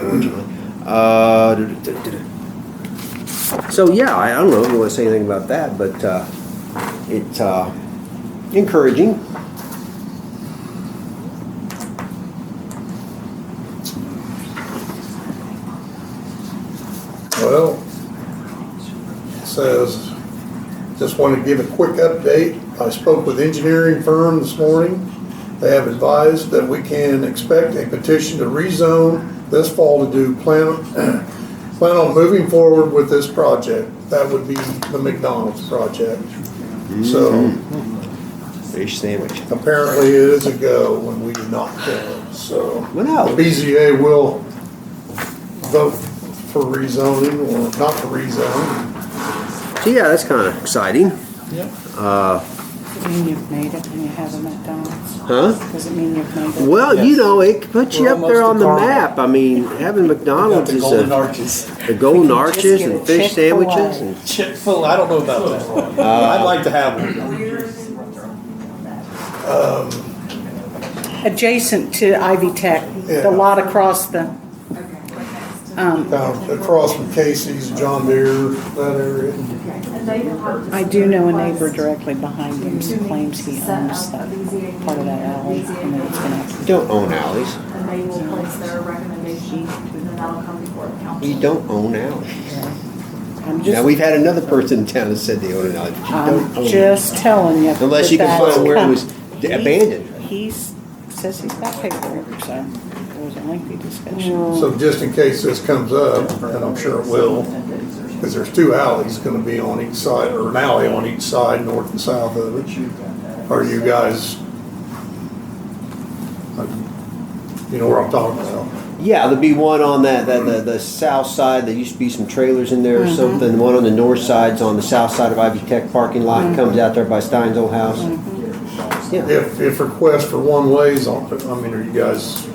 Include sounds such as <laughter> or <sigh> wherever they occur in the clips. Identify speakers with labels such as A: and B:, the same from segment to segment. A: originally. Uh, duh, duh, duh, duh, duh. So, yeah, I I don't know if you want to say anything about that, but uh, it's uh, encouraging.
B: Well, it says, just want to give a quick update. I spoke with engineering firm this morning. They have advised that we can expect a petition to rezone this fall to do plan, <clears throat> plan on moving forward with this project. That would be the McDonald's project. So
A: Fish sandwich.
B: apparently it is a go when we do not go, so.
A: Well, no.
B: The BZA will vote for rezoning or not to rezone.
A: So, yeah, that's kind of exciting.
C: Does it mean you've made it and you have a McDonald's?
A: Huh?
C: Does it mean you've made it?
A: Well, you
D: Yes.
A: know, it could put you
D: We're
A: up there
D: almost
A: on the
D: to Carmel.
A: map. I mean, having McDonald's
D: the
A: is
D: golden
A: a,
D: arches. <laughs>
A: the golden
C: just
A: arches
C: get a
A: and fish
C: Chick-fil-A.
A: sandwiches and
D: Chick Fil. I don't know about that. I'd like to have one.
C: Adjacent to Ivy Tech,
B: Yeah.
C: the lot across the, um,
B: Down across from Casey's, John Deere, that area.
C: I do know a neighbor directly behind him who claims he owns that part of that alley. and that it's gonna-
A: you don't own alleys.
E: And they will place their recommendation, and then that'll come before the council.
A: You don't own alleys.
C: I'm
A: Now,
C: just,
A: we've had another person in town that said they own an alley, but you don't
C: I'm
A: own.
C: just telling you.
A: Unless
C: that
A: you can
C: that's
A: find where it was
C: coming.
A: d-
C: He's-
A: abandoned.
C: He's, says he's got paperwork, so there was a lengthy
A: Mm.
C: discussion.
B: So just in case this comes up, and I'm sure it will, because there's two alleys gonna be on each side, or an alley on each side, north and south of it. Are you guys? You know where I'm talking about?
A: Yeah, there'd be one on that, that, the, the south side, there used to be some trailers in there or something. One on the north side's on the south side of Ivy Tech parking lot, comes out there by Stein's old house. Yeah,
B: If, if request for one ways on, I mean, are you guys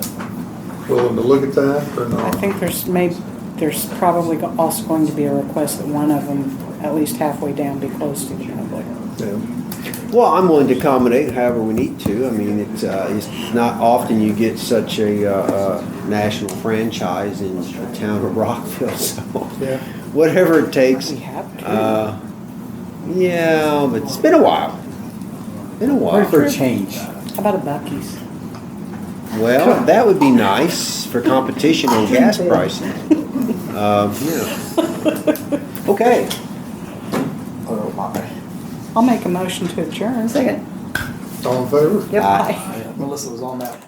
B: willing to look at that or
C: I
B: not?
C: think there's may there's probably go- also going to be a request that one of them, at least halfway down, be closed to the public.
B: Yeah.
A: well, I'm willing to accommodate however we need to. I mean, it's, uh, it's not often you get such a, uh, uh, national franchise in the town of Rockville, <laughs> so.
B: Yeah.
A: Whatever it takes.
C: We have to.
A: Uh, yeah, but it's been a while. Been a while.
D: Wait for a change.
C: How about a Bucky's?
A: Well, that would be nice for competition on gas prices. Um, yeah. Okay.
D: Oh my.
C: I'll make a motion to adjourn. Second.
B: All in favor?
C: Yep.
A: Aye.
C: aye.
D: Melissa was on that.